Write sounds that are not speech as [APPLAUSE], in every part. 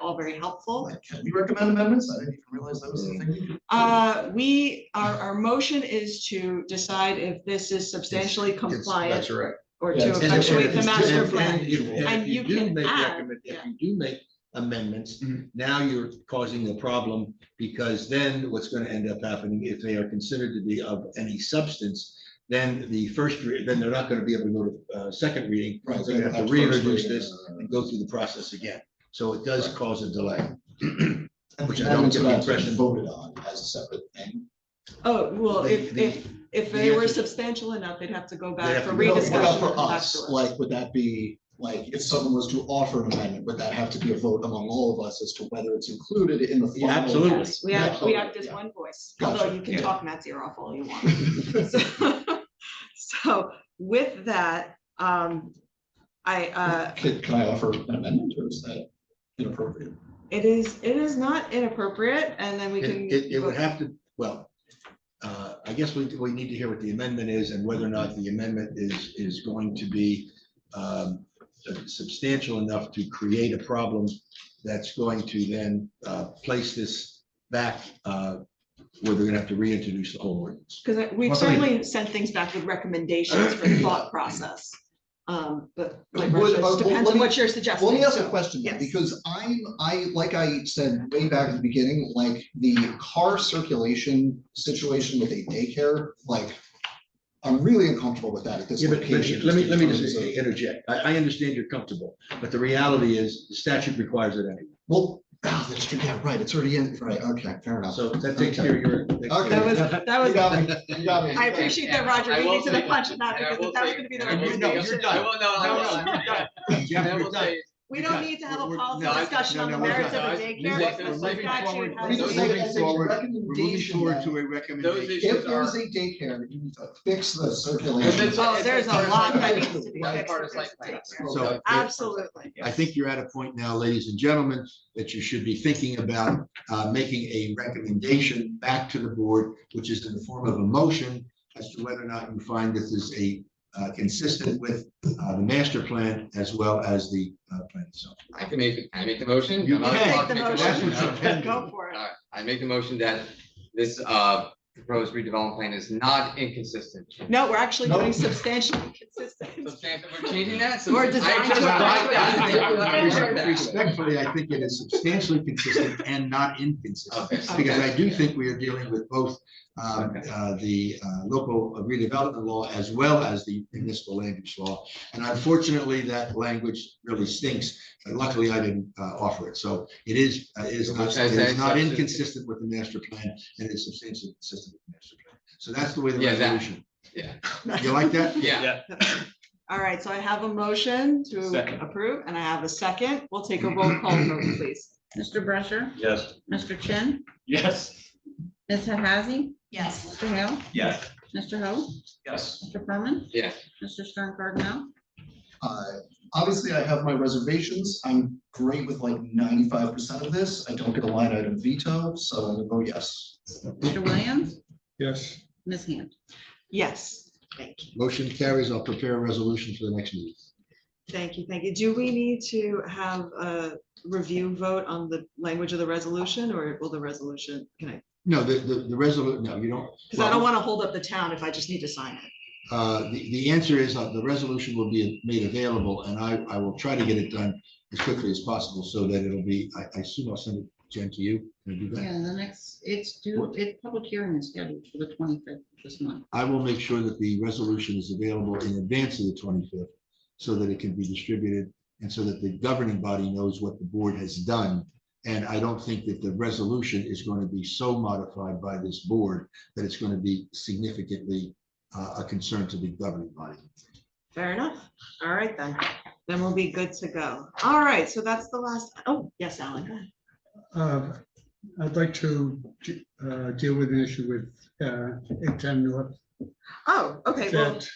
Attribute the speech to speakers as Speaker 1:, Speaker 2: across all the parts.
Speaker 1: all very helpful.
Speaker 2: Like, Can we recommend amendments? I didn't even realize that was a thing. we could-
Speaker 1: Uh, we, our, our motion is to decide if this is substantially compliant
Speaker 3: That's right.
Speaker 1: or
Speaker 2: Yeah,
Speaker 1: to
Speaker 2: it's-
Speaker 3: And if-
Speaker 1: effectuate the
Speaker 3: and-
Speaker 1: master
Speaker 3: and-
Speaker 1: plan.
Speaker 3: And if- and
Speaker 1: And
Speaker 3: if you
Speaker 1: you
Speaker 3: do
Speaker 1: can
Speaker 3: make
Speaker 1: add,
Speaker 3: recommend, if
Speaker 1: yeah.
Speaker 3: you do make amendments,
Speaker 2: Mhm.
Speaker 3: now you're causing a problem because then what's going to end up happening, if they are considered to be of any substance, then the first, re- then they're not going to be able to go to uh, second reading.
Speaker 2: Right,
Speaker 3: They're going to have to
Speaker 2: first
Speaker 3: reintroduce
Speaker 2: reading,
Speaker 3: this
Speaker 2: uh,
Speaker 3: and go through the process again. So it does
Speaker 2: Right.
Speaker 3: cause a delay.
Speaker 2: and
Speaker 3: which
Speaker 2: the
Speaker 3: I don't
Speaker 2: amendments
Speaker 3: get
Speaker 2: are
Speaker 3: the
Speaker 2: actually
Speaker 3: impression-
Speaker 2: Voted on as a separate thing.
Speaker 1: Oh, well,
Speaker 3: The-
Speaker 1: if,
Speaker 3: the-
Speaker 1: if, if
Speaker 3: the
Speaker 1: they were
Speaker 3: answer-
Speaker 1: substantial enough, they'd have to go
Speaker 3: They'd
Speaker 1: back
Speaker 3: have
Speaker 1: for
Speaker 3: to go-
Speaker 2: No,
Speaker 1: rediscussion.
Speaker 2: what about
Speaker 1: and
Speaker 2: for
Speaker 1: come back
Speaker 2: us?
Speaker 1: to us.
Speaker 2: Like, would that be, like, if someone was to offer an amendment, would that have to be a vote among all of us as to whether it's included in the
Speaker 3: Yeah,
Speaker 2: final?
Speaker 3: absolutely.
Speaker 1: Yes, we act, we
Speaker 2: Absolutely,
Speaker 1: act as
Speaker 2: yeah.
Speaker 1: one voice,
Speaker 2: Gotcha,
Speaker 1: although you can
Speaker 2: yeah.
Speaker 1: talk Matt's ear off all you want.
Speaker 3: [LAUGHS]
Speaker 1: [LAUGHS] So- So with that, um, I, uh,
Speaker 2: Can, can I offer an amendment or is that inappropriate?
Speaker 1: it is, it is not inappropriate and then we can.
Speaker 3: It, it- it would
Speaker 1: vote.
Speaker 3: have to, well, uh, I guess we, we need to hear what the amendment is and whether or not the amendment is, is going to be um, substantial enough to create a problem that's going to then uh, place this back uh, where they're gonna have to reintroduce the whole ordinance.
Speaker 1: Cause I- we've
Speaker 3: Well, I mean-
Speaker 1: certainly sent things back with recommendations for thought process. Um, but like,
Speaker 2: Would-
Speaker 1: Russia,
Speaker 2: uh,
Speaker 1: it depends
Speaker 2: let
Speaker 1: on
Speaker 2: me-
Speaker 1: what you're suggesting.
Speaker 2: Well, Let me ask a
Speaker 1: so-
Speaker 2: question, though,
Speaker 1: yes.
Speaker 2: because I'm, I, like I said way back at the beginning, like the car circulation situation with a daycare, like. I'm really uncomfortable with that at this
Speaker 3: Yeah, but but
Speaker 2: location.
Speaker 3: let me, let me
Speaker 2: in terms
Speaker 3: just
Speaker 2: of-
Speaker 3: interject. I, I understand you're comfortable, but the reality is the statute requires it anyway.
Speaker 2: Well, ah, that's true, yeah, right, it's already in, right, okay, fair enough.
Speaker 3: So that takes care of your.
Speaker 1: That was, [LAUGHS] that was, I
Speaker 2: I
Speaker 1: appreciate that Roger
Speaker 4: I
Speaker 1: beat
Speaker 4: will
Speaker 1: me to the
Speaker 4: say-
Speaker 1: punch of that
Speaker 4: and I
Speaker 1: because
Speaker 4: will
Speaker 1: if that was
Speaker 4: say-
Speaker 1: gonna be the
Speaker 4: and I will
Speaker 3: No, you're
Speaker 1: recommendation.
Speaker 3: done.
Speaker 4: I will, no, no,
Speaker 3: No, no,
Speaker 4: no.
Speaker 3: you're done.
Speaker 4: And
Speaker 3: Jeff,
Speaker 4: I
Speaker 3: you're
Speaker 4: will
Speaker 3: done.
Speaker 4: say,
Speaker 1: We don't
Speaker 3: Because
Speaker 1: need to have a
Speaker 3: we're- we're-
Speaker 1: policy
Speaker 4: no, I-
Speaker 1: discussion
Speaker 3: no,
Speaker 1: on the
Speaker 3: no, we're
Speaker 1: merits of
Speaker 4: not.
Speaker 1: a
Speaker 4: Guys,
Speaker 1: daycare.
Speaker 4: we're
Speaker 1: if the
Speaker 4: moving
Speaker 1: statute
Speaker 4: forward.
Speaker 1: has
Speaker 2: We're
Speaker 1: a
Speaker 2: moving
Speaker 1: certain-
Speaker 2: forward.
Speaker 3: a
Speaker 4: those
Speaker 2: If
Speaker 4: issues
Speaker 2: there is
Speaker 4: are,
Speaker 2: a daycare, you need to fix the
Speaker 4: And
Speaker 2: circulation.
Speaker 4: that's-
Speaker 1: Oh, there's a lot that needs to be
Speaker 4: Right,
Speaker 1: fixed.
Speaker 4: part
Speaker 1: with
Speaker 4: of site
Speaker 1: this
Speaker 4: plan.
Speaker 1: daycare.
Speaker 3: So-
Speaker 4: Yeah.
Speaker 1: Absolutely.
Speaker 3: I think you're at a point now, ladies and gentlemen, that you should be thinking about uh, making a recommendation back to the board, which is in the form of a motion as to whether or not you find this is a uh, consistent with uh, the master plan as well as the uh, plan itself.
Speaker 4: I can make, can I make the motion?
Speaker 3: You
Speaker 4: I'm not
Speaker 3: can.
Speaker 1: Take
Speaker 4: allowed
Speaker 1: the
Speaker 4: to make the
Speaker 3: That's
Speaker 1: motion.
Speaker 3: what you're
Speaker 4: motion.
Speaker 3: intending.
Speaker 1: Go for it.
Speaker 4: Alright, I make the motion that this, uh, proposed redevelopment plan is not inconsistent.
Speaker 1: No, we're actually
Speaker 2: Nope.
Speaker 1: doing substantially consistent.
Speaker 4: Substantive, we're changing that?
Speaker 1: Or
Speaker 4: Substan-
Speaker 1: design
Speaker 4: I just
Speaker 1: to-
Speaker 4: like that. I like that.
Speaker 3: Respectfully, I think it is substantially consistent and not inconsistent.
Speaker 4: Okay.
Speaker 3: Because I do
Speaker 4: Okay.
Speaker 3: think we are dealing with both um,
Speaker 4: Okay.
Speaker 3: uh, the uh, local redevelopment law as well as the municipal land use law. And unfortunately, that language really stinks. But Luckily, I didn't uh, offer it. So it is, uh, it is not,
Speaker 4: Which I
Speaker 3: it
Speaker 4: say
Speaker 3: is not
Speaker 4: substantive.
Speaker 3: inconsistent with the master plan and it's substantially consistent with the master plan. So that's the way the
Speaker 4: Yeah, that-
Speaker 3: resolution.
Speaker 4: yeah.
Speaker 3: [LAUGHS] You like that?
Speaker 4: Yeah,
Speaker 1: All right, so I have a motion to
Speaker 5: Second.
Speaker 1: approve and I have a second. We'll take a roll call vote, please.
Speaker 6: Mr. Brusher?
Speaker 5: Yes.
Speaker 6: Mr. Chin?
Speaker 5: Yes.
Speaker 6: Ms. Hazzy?
Speaker 1: Yes.
Speaker 6: Mr. Hale?
Speaker 5: Yes.
Speaker 6: Mr. Ho?
Speaker 5: Yes.
Speaker 6: Mr. Furman?
Speaker 4: yeah.
Speaker 6: Mr. Stern Cardinal?
Speaker 2: Uh, Obviously, I have my reservations. I'm great with like ninety-five percent of this. I don't get a line item veto, so I'm gonna vote yes.
Speaker 6: Mr. Williams?
Speaker 5: Yes.
Speaker 6: Ms. Hand?
Speaker 1: Yes,
Speaker 3: Motion carries. I'll prepare a resolution for the next meeting.
Speaker 1: thank you, thank you. Do we need to have a review vote on the language of the resolution or will the resolution, can I?
Speaker 3: No, the, the, the resolution, no, you don't.
Speaker 1: Because I don't
Speaker 3: Well-
Speaker 1: want to hold up the town if I just need to sign it.
Speaker 3: Uh, the, the answer is uh, the resolution will be made available and I, I will try to get it done as quickly as possible so that it'll be, I, I assume I'll send it, Jen, to you. Can I do that?
Speaker 6: Yeah, the next, it's due, it, public hearing is scheduled for the twenty-fifth this month.
Speaker 3: I will make sure that the resolution is available in advance of the twenty-fifth so that it can be distributed and so that the governing body knows what the board has done. And I don't think that the resolution is going to be so modified by this board that it's going to be significantly uh, a concern to the governing body.
Speaker 1: Fair enough. All right, then. Then we'll be good to go. All right, so that's the last, oh, yes, Alan. go ahead.
Speaker 7: Uh, I'd like to uh, deal with an issue with uh, 810 North.
Speaker 1: Oh, okay, well,
Speaker 7: that-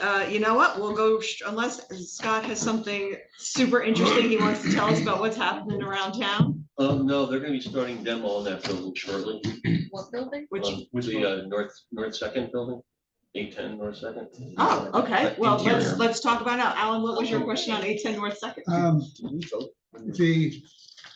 Speaker 1: uh, you know what? We'll go, sh- unless Scott has something super interesting he wants to tell us about what's happening around town,
Speaker 8: Um, no, they're gonna be starting demo on that building shortly.
Speaker 6: What building?
Speaker 1: which,
Speaker 8: Um, The uh, north, north second building, eight ten north second. Uh,
Speaker 1: oh, okay, well, let's,
Speaker 3: Interior.
Speaker 1: let's talk about it now. Alan, what was your question on eight ten North Second?
Speaker 7: um, The